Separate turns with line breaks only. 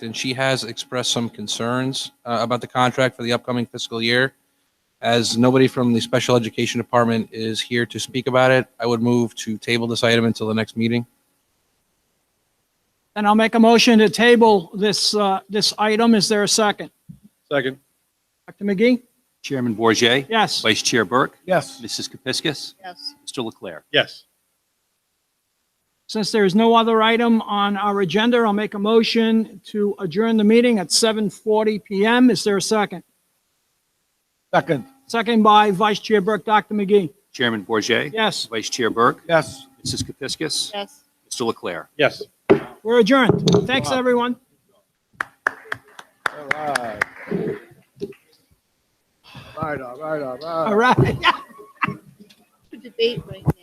and she has expressed some concerns uh, about the contract for the upcoming fiscal year. As nobody from the Special Education Department is here to speak about it, I would move to table this item until the next meeting.
And I'll make a motion to table this, uh, this item. Is there a second?
Second.
Dr. McGee?
Chairman Bourget,
Yes.
Vice Chair Burke,
Yes.
Mrs. Kepiscus,
yes,
Mr. Leclerc.
Yes.
Since there is no other item on our agenda, I'll make a motion to adjourn the meeting at 7:40 PM. Is there a second?
Second.
Second by Vice Chair Burke, Dr. McGee.
Chairman Bourget,
Yes,
Vice Chair Burke,
Yes.
Mrs. Kepiscus,
yes.
Mr. Leclerc.
Yes.
we're adjourned. Thanks, everyone.
All right. Right on, right on, right on.
All right.
The debate right now.